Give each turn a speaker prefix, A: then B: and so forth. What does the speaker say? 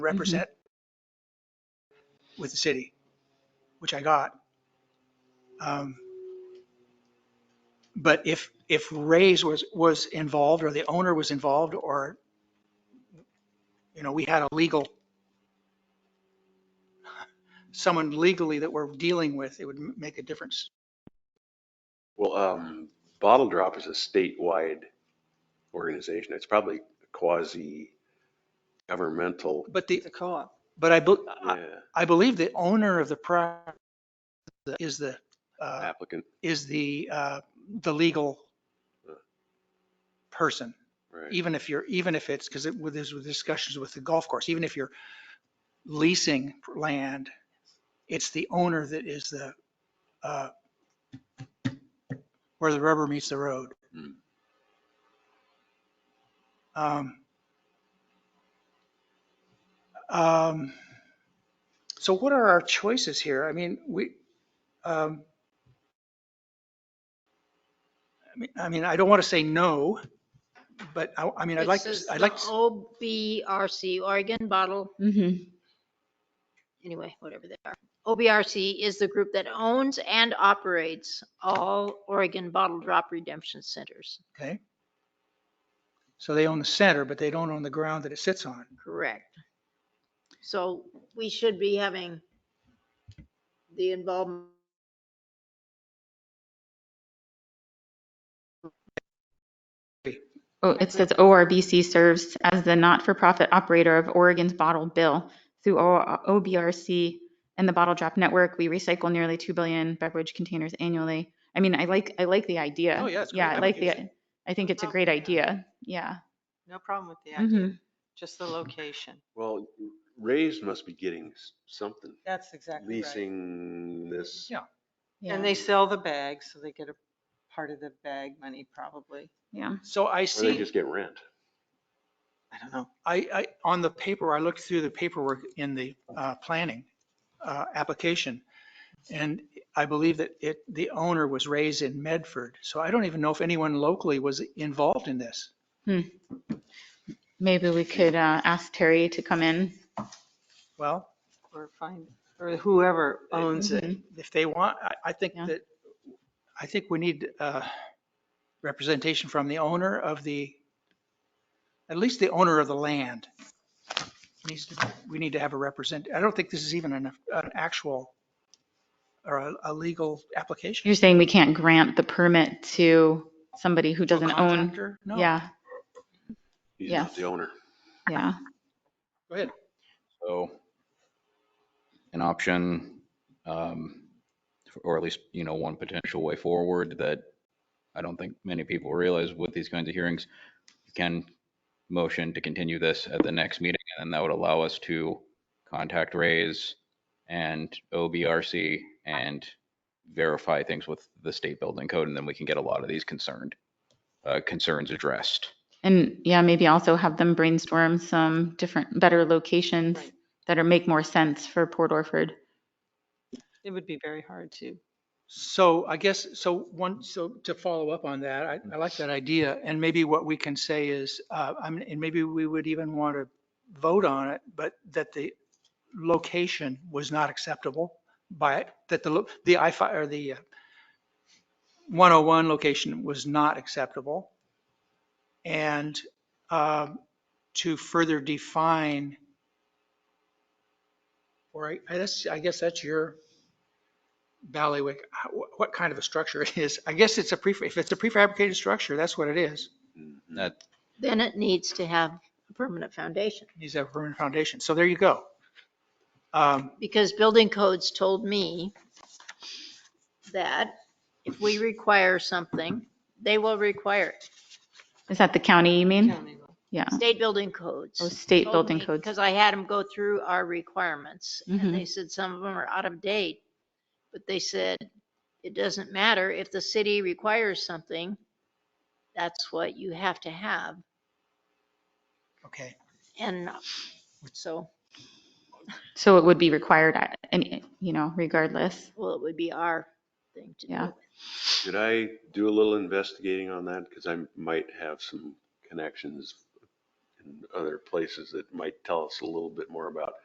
A: represent with the city, which I got. Um, But if, if Ray's was, was involved or the owner was involved or, you know, we had a legal, someone legally that we're dealing with, it would m- make a difference.
B: Well, um, Bottle Drop is a statewide organization. It's probably quasi governmental.
A: But the, but I, bel- I-
B: Yeah,
A: I believe the owner of the property is the, uh,
B: applicant,
A: is the, uh, the legal person.
B: right.
A: even if you're, even if it's, because it, with this, with discussions with the golf course, even if you're leasing land, it's the owner that is the, uh, where the rubber meets the road.
B: Hmm.
A: Um, um, So what are our choices here? I mean, we, um, I mean, I mean, I don't want to say no, but I, I mean, I'd like, to.
C: This is
A: I'd
C: the
A: like. to-
C: OBRC, Oregon Bottle,
D: Mm-hmm.
C: anyway, whatever they are. OBRC is the group that owns and operates all Oregon Bottle Drop Redemption Centers.
A: Okay. So they own the center, but they don't own the ground that it sits on.
C: Correct. So we should be having the involvement.
D: Oh, it says ORBC serves as the not-for-profit operator of Oregon's Bottle Bill. Through O- OBRC and the Bottle Drop Network, we recycle nearly 2 billion beverage containers annually. I mean, I like, I like the idea.
E: Oh, yeah, it's a
D: Yeah,
E: great
D: I like the,
E: application.
D: I think it's a great idea. Yeah.
E: No problem with the
C: Mm-hmm.
E: idea,
D: Mhm.
E: just the location.
B: Well, Rays must be getting s- something,
E: That's exactly right.
B: leasing this.
A: Yeah.
E: And they sell the bags, so they get a part of the bag money probably.
D: Yeah.
A: So I
B: Or they
A: see,
B: just get rent.
E: I don't know.
A: I, I, on the paper, I looked through the paperwork in the uh, planning uh, application. And I believe that it, the owner was raised in Medford. So I don't even know if anyone locally was involved in this.
D: Maybe we could uh, ask Terry to come in.
A: Well,
E: Or find, or whoever owns it.
D: Mhm.
A: mm-hmm. if they want, I, I think
D: Yeah.
A: that, I think we need uh, representation from the owner of the, at least the owner of the land. Needs to, we need to have a represent, I don't think this is even an, an actual or a, a legal application.
D: You're saying we can't grant the permit to somebody who doesn't own?
A: Contractor? No.
D: Yeah,
B: He's not
D: Yes.
B: the owner.
D: yeah.
A: Go ahead.
F: So an option, um, or at least, you know, one potential way forward that I don't think many people realize with these kinds of hearings, you can motion to continue this at the next meeting, and then that would allow us to contact Rays and OBRC and verify things with the state building code, and then we can get a lot of these concerned, uh, concerns addressed.
D: And yeah, maybe also have them brainstorm some different, better locations
E: Right.
D: that are, make more sense for Port Orford.
E: It would be very hard to.
A: So I guess, so one, so to follow up on that, I, I like that idea. And maybe what we can say is, uh, I mean, and maybe we would even want to vote on it, but that the location was not acceptable by, that the, lo- the I fi or the uh, 101 location was not acceptable. And, um, to further define, or I, I guess, I guess that's your ballywick, how- wh- what kind of a structure it is. I guess it's a prefab, if it's a prefabricated structure, that's what it is.
F: That,
C: Then it needs to have a permanent foundation.
A: Needs to have a permanent foundation. So there you go. Um,
C: because building codes told me that if we require something, they will require it.
D: Is that the county you mean?
E: county law.
D: Yeah,
C: State building codes.
D: Oh, state building codes.
C: Because I had them go through our requirements
D: Mhm.
C: and they said some of them are out of date. But they said, it doesn't matter if the city requires something, that's what you have to have.
A: Okay.
C: And so,
D: So it would be required, at any, you know, regardless.
C: well, it would be our thing to
D: Yeah.
C: do.
B: Should I do a little investigating on that? Because I might have some connections and other places that might tell us a little bit more about